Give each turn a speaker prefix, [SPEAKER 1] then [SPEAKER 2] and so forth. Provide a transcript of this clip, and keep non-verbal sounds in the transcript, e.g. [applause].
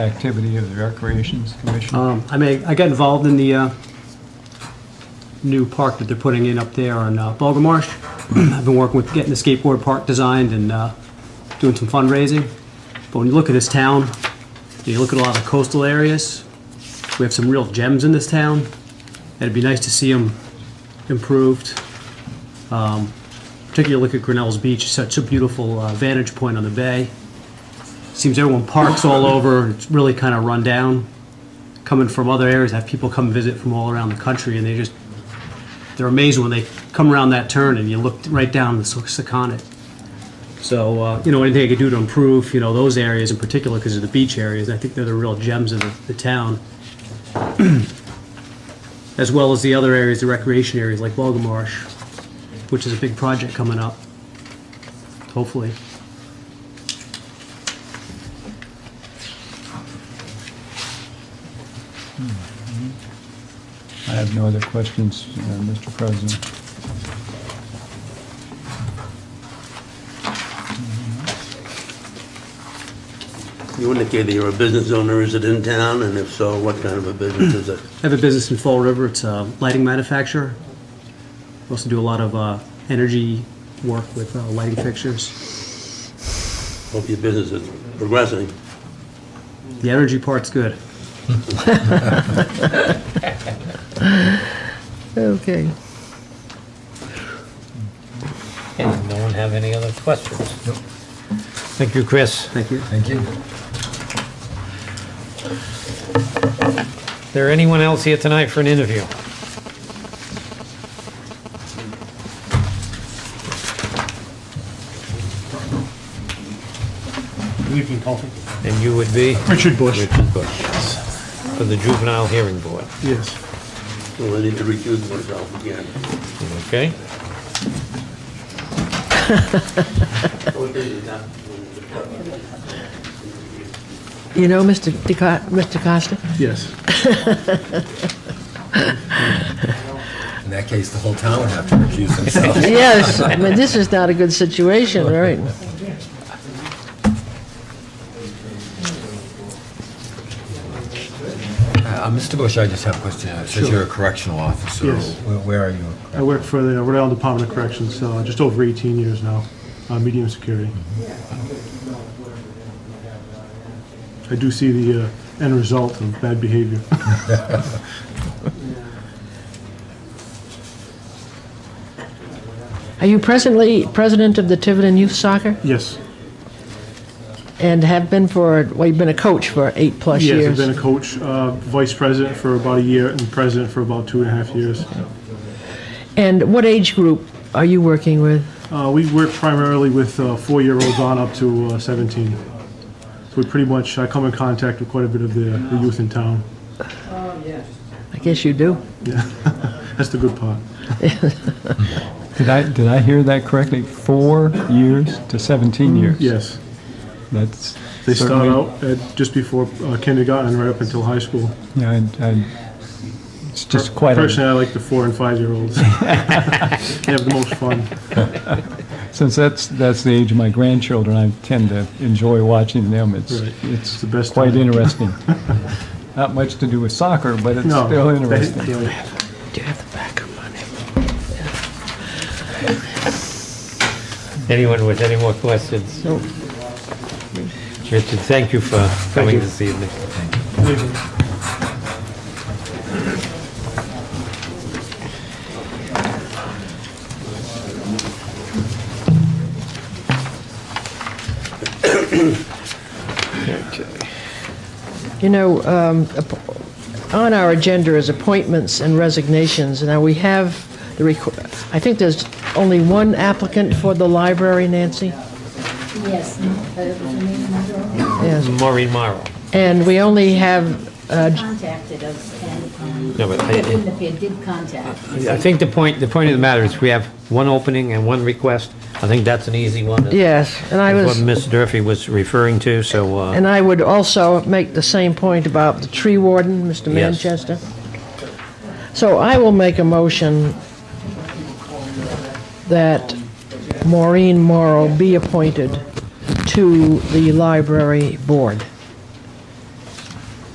[SPEAKER 1] activity of the Recreations Commission?
[SPEAKER 2] Um, I mean, I got involved in the uh, new park that they're putting in up there on uh, Bulga Marsh. [clears throat] I've been working with getting the skateboard park designed and uh, doing some fundraising. But when you look at this town, you look at a lot of coastal areas, we have some real gems in this town. and It'd be nice to see them improved. Um, Particularly look at Grinnell's Beach, such a beautiful uh, vantage point on the bay. Seems everyone parks all over, it's really kind of run down coming from other areas, I have people come visit from all around the country, and they just, they're amazed when they come around that turn and you look right down the Susquehannet. So, uh, you know, anything I could do to improve, you know, those areas in particular, because of the beach areas, I think they're the real gems of the, the town. [clears throat] As well as the other areas, the recreation areas like Bulga Marsh, which is a big project coming up, hopefully.
[SPEAKER 1] I have no other questions, uh, Mr. President.
[SPEAKER 3] You indicated you're a business owner, is it in town, and if so, what kind of a business is it?
[SPEAKER 2] I have a business in Fall River. It's a lighting manufacturer. We also do a lot of uh, energy work with uh, lighting fixtures.
[SPEAKER 3] Hope your business is progressing.
[SPEAKER 2] The energy part's good.
[SPEAKER 4] Okay.
[SPEAKER 5] And no one have any other questions? Thank you, Chris.
[SPEAKER 2] Thank you.
[SPEAKER 6] Thank you.
[SPEAKER 5] Is there anyone else here tonight for an interview? And you would be? Richard Bush. Richard Bush, yes. For the Juvenile Hearing Board,
[SPEAKER 6] Yes.
[SPEAKER 3] Well, I need to recuse myself again.
[SPEAKER 5] okay?
[SPEAKER 4] You know, Mr. DeCo- Mr. Costa?
[SPEAKER 6] Yes. In that case, the whole town would have to recuse
[SPEAKER 4] [laughs]
[SPEAKER 6] themselves.
[SPEAKER 4] Yes, I mean, this is not a good situation, right?
[SPEAKER 6] [laughs] Uh, Mr. Bush, I just have a question. It says you're a correctional officer.
[SPEAKER 7] Yes.
[SPEAKER 6] Where- Where are you?
[SPEAKER 7] I work for the Rhode Island Department of Corrections, uh, just over 18 years now, uh, medium security. I do see the uh, end result of bad behavior.
[SPEAKER 4] Are you presently president of the Tiverton Youth Soccer
[SPEAKER 7] Yes.
[SPEAKER 4] and have been for, well, you've been a coach for eight-plus
[SPEAKER 7] Yes, I've
[SPEAKER 4] years?
[SPEAKER 7] been a coach, uh, vice president for about a year, and president for about two and a half years.
[SPEAKER 4] And what age group are you working with?
[SPEAKER 7] Uh, We work primarily with uh, four-year-olds on up to uh, 17. So we pretty much, I come in contact with quite a bit of the the youth in town.
[SPEAKER 4] I guess you do.
[SPEAKER 7] That's the good part.
[SPEAKER 1] Did I, did I hear that correctly? Four years to 17 years?
[SPEAKER 7] Yes.
[SPEAKER 1] That's
[SPEAKER 7] Mm-hmm. They start
[SPEAKER 1] certainly-
[SPEAKER 7] out at just before uh, kindergarten, right up until high school.
[SPEAKER 1] Yeah, and, and it's just quite, a
[SPEAKER 7] Personally, I like the four and five year olds. [laughs] they have the most fun.
[SPEAKER 1] since that's, that's the age of my grandchildren, I tend to enjoy watching them. It's,
[SPEAKER 7] Right.
[SPEAKER 1] it's
[SPEAKER 7] the best
[SPEAKER 1] quite
[SPEAKER 7] time.
[SPEAKER 1] interesting. [laughs] Not much to do with soccer, but it's
[SPEAKER 7] No,
[SPEAKER 1] still
[SPEAKER 7] they-
[SPEAKER 1] interesting.
[SPEAKER 7] they-
[SPEAKER 4] Do you have the backup on him?
[SPEAKER 5] Anyone with any more questions?
[SPEAKER 4] No.
[SPEAKER 5] Richard, thank you for coming this evening.
[SPEAKER 4] You know, um, app- on our agenda is appointments and resignations. Now, we have the, requ- I think there's only one applicant for the library, Nancy?
[SPEAKER 8] Yes, but it was a meeting number.
[SPEAKER 4] Yes.
[SPEAKER 5] Maureen Morrow.
[SPEAKER 4] And we only have, uh,
[SPEAKER 8] contacted us and
[SPEAKER 5] No,
[SPEAKER 8] um,
[SPEAKER 5] but I-
[SPEAKER 8] Windermere did contact.
[SPEAKER 5] I think the point, the point of the matter is we have one opening and one request. I think that's an easy one.
[SPEAKER 4] yes, and I
[SPEAKER 5] That's
[SPEAKER 4] was,
[SPEAKER 5] what Ms. Durfee was referring to, so, uh,
[SPEAKER 4] and I would also make the same point about the tree warden, Mr.
[SPEAKER 5] Yes.
[SPEAKER 4] Manchester. So I will make a motion that Maureen Morrow be appointed to the library board.